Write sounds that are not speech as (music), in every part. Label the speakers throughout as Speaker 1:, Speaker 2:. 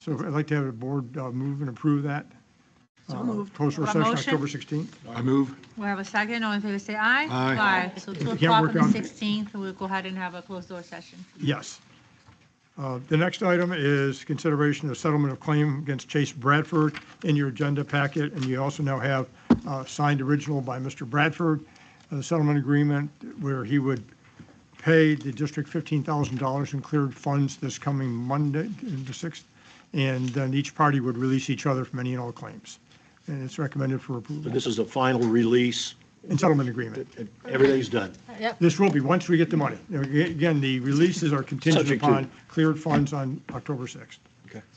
Speaker 1: So I'd like to have the board uh, move and approve that. So moved. Closed
Speaker 2: Have a
Speaker 1: session
Speaker 2: motion?
Speaker 1: October 16th.
Speaker 3: I move.
Speaker 2: We have a second, all in favor say aye.
Speaker 3: Aye.
Speaker 2: So 2
Speaker 1: can't
Speaker 2: o'clock on
Speaker 1: work
Speaker 2: the
Speaker 1: on-
Speaker 2: 16th, we'll go ahead and have a closed door session.
Speaker 1: Yes. Uh, The next item is consideration of settlement of claim against Chase Bradford in your agenda packet, and you also now have uh, signed original by Mr. Bradford, a settlement agreement where he would pay the district $15,000 in cleared funds this coming Monday, the 6th, and then each party would release each other from any and all claims. And it's recommended for approval
Speaker 4: This is the final release.
Speaker 1: in settlement agreement.
Speaker 4: Everything's done.
Speaker 1: This will be, once we get the money. Now, aga- Again, the releases are contingent
Speaker 4: Subject to-
Speaker 1: upon cleared funds on October 6th.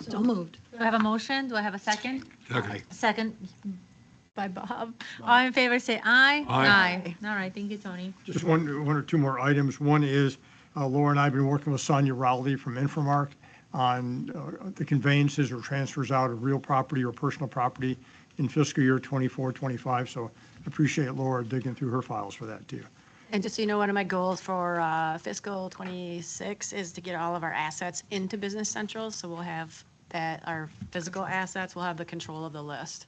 Speaker 5: So moved.
Speaker 2: Do I have a motion? Do I have a second?
Speaker 3: Second.
Speaker 2: Second by Bob. All in favor say aye.
Speaker 3: Aye.
Speaker 2: All right, thank you, Tony.
Speaker 1: Just one, one or two more items. One is uh, Laura and I have been working with Sonia Rowley from Infomark on uh, the conveyances or transfers out of real property or personal property in fiscal year 24, 25. So appreciate Laura digging through her files for that too.
Speaker 5: And just so you know, one of my goals for uh, fiscal '26 is to get all of our assets into Business Central. So we'll have that, our physical assets, we'll have the control of the list.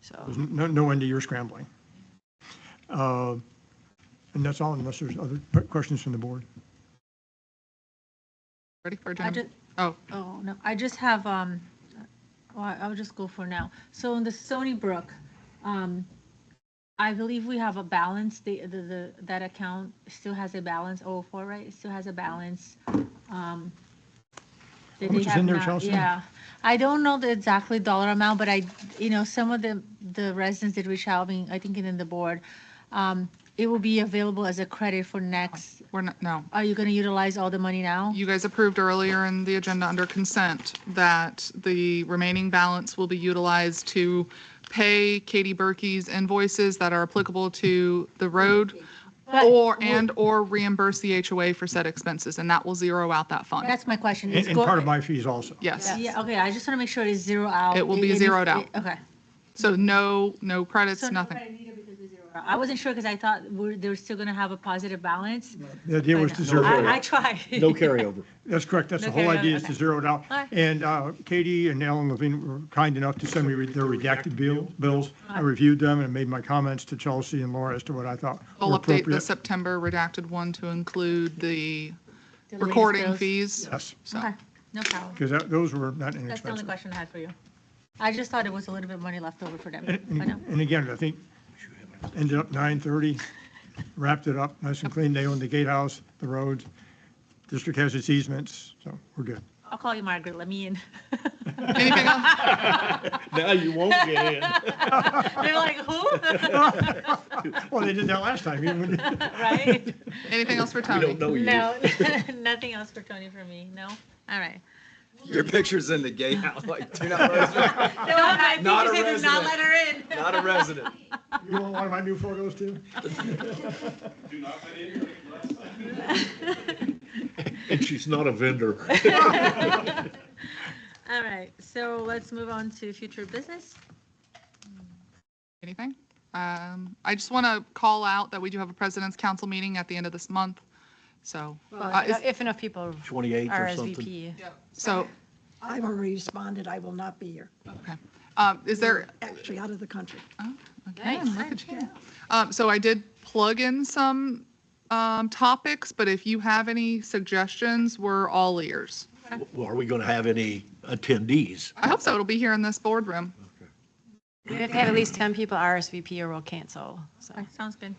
Speaker 5: So,
Speaker 1: There's no, no end to your scrambling. Uh, And that's all unless there's other questions from the board.
Speaker 6: Ready for
Speaker 2: I
Speaker 6: adjournment?
Speaker 2: just,
Speaker 6: Oh,
Speaker 2: oh, no, I just have, um, well, I- I'll just go for now. So in the Stony Brook, um, I believe we have a balance, the, the, the, that account still has a balance, oh, four, right? It still has a balance. um,
Speaker 1: How
Speaker 2: that they
Speaker 1: much is
Speaker 2: have
Speaker 1: in there,
Speaker 2: not-
Speaker 1: Chelsea?
Speaker 2: Yeah, I don't know the exactly dollar amount, but I, you know, some of the, the residents did reach out, I mean, I think in the board. Um, it will be available as a credit for next,
Speaker 6: we're not, no.
Speaker 2: are you gonna utilize all the money now?
Speaker 6: You guys approved earlier in the agenda under consent that the remaining balance will be utilized to pay Katie Berkey's invoices that are applicable to the road
Speaker 2: But-
Speaker 6: or, and/or reimburse the HOA for said expenses, and that will zero out that fund.
Speaker 2: That's my question.
Speaker 1: And
Speaker 2: It's
Speaker 1: and
Speaker 2: go-
Speaker 1: part of my fees also.
Speaker 6: Yes.
Speaker 2: Yeah, okay, I just want to make sure it's zero out.
Speaker 6: It will be
Speaker 2: is-
Speaker 6: zeroed out.
Speaker 2: Okay.
Speaker 6: So no, no credits, nothing.
Speaker 2: I wasn't sure because I thought we're, they were still going to have a positive balance.
Speaker 1: The idea was to zero. it out.
Speaker 2: I, I tried.
Speaker 1: (laughs)
Speaker 4: No carryover.
Speaker 1: That's correct. That's the
Speaker 2: Okay,
Speaker 1: whole idea is
Speaker 2: okay.
Speaker 1: to zero it out.
Speaker 2: All right.
Speaker 1: And uh, Katie and Alan Levine were kind enough to send me re- their redacted bill- bills. I reviewed them and made my comments to Chelsea and Laura as to what I thought were
Speaker 6: We'll update the
Speaker 1: appropriate.
Speaker 6: September redacted one to include the
Speaker 2: latest
Speaker 6: recording
Speaker 2: bills.
Speaker 6: fees.
Speaker 1: Yes,
Speaker 2: (laughs)
Speaker 6: So
Speaker 2: Okay, no problem.
Speaker 1: because those were not
Speaker 2: That's the only
Speaker 1: inexpensive.
Speaker 2: question I had for you. I just thought it was a little bit of money left
Speaker 1: (laughs)
Speaker 2: over for them.
Speaker 1: And-
Speaker 2: but no.
Speaker 1: And and again, I think ended up 9:30, wrapped it up nice and clean. They own the gatehouse, the roads. District has its easements, so we're good.
Speaker 2: I'll call you Margaret, let me in. (laughs)
Speaker 6: anything else?
Speaker 4: (laughs) Now you won't get in.
Speaker 2: They're like, who? (laughs)
Speaker 1: Well, they did that last time. even when- (laughs)
Speaker 2: Right?
Speaker 6: Anything else for
Speaker 4: We
Speaker 6: Tony?
Speaker 4: don't know you.
Speaker 2: No, (laughs) nothing else for Tony for me, no? All right.
Speaker 7: Your picture's in the gatehouse, like, do not, resident-
Speaker 2: No, I think
Speaker 7: Not a
Speaker 2: you said do not
Speaker 7: resident.
Speaker 2: let her in.
Speaker 7: not a resident.
Speaker 1: You want one of my new photos too?
Speaker 4: And she's not a (laughs) vendor.
Speaker 2: All right, so let's move on to future business.
Speaker 6: anything. Um, I just want to call out that we do have a president's council meeting at the end of this month. So, uh,
Speaker 5: Well,
Speaker 6: is-
Speaker 5: if enough people
Speaker 4: 28th or something.
Speaker 5: RSVP.
Speaker 6: so,
Speaker 8: I've already responded, I will not be here,
Speaker 6: okay. Um, is there,
Speaker 8: actually out of the country.
Speaker 6: again, look at you. Um, so I did plug in some, um, topics, but if you have any suggestions, we're all ears.
Speaker 4: Well, Are we going to have any attendees?
Speaker 6: I hope so. It'll be here in this boardroom.
Speaker 5: We have to have at least 10 people RSVP or we'll cancel, so.
Speaker 2: Okay, Sounds good.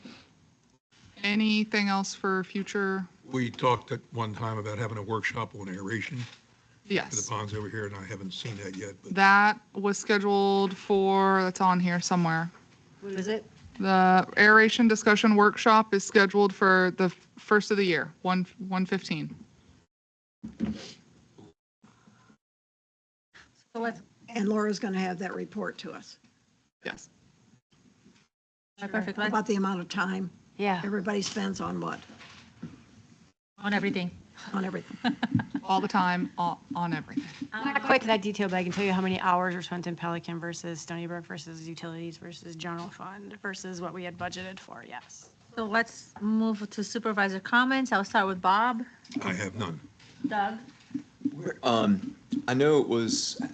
Speaker 6: Anything else for future?
Speaker 3: We talked at one time about having a workshop on aeration for the
Speaker 6: Yes.
Speaker 3: ponds over here, and I haven't seen that yet, but
Speaker 6: That was scheduled for, that's on here somewhere.
Speaker 5: What is it?
Speaker 6: The aeration discussion workshop is scheduled for the first of the year, 1, 115.
Speaker 2: So let's,
Speaker 8: And Laura's going to have that report to us
Speaker 6: Yes.
Speaker 2: perfect, let's,
Speaker 8: about the amount of time
Speaker 5: Yeah.
Speaker 8: everybody spends on what,
Speaker 2: on everything.
Speaker 8: on everything.
Speaker 6: All the time, all- on everything.
Speaker 5: I'm not quite to that detail, but I can tell you how many hours were spent in Pelican versus Stony Brook versus utilities versus general fund versus what we had budgeted for, yes.
Speaker 2: So let's move to supervisor comments. I'll start with Bob.
Speaker 3: I have none.
Speaker 2: Doug?
Speaker 7: Um, I know it was, I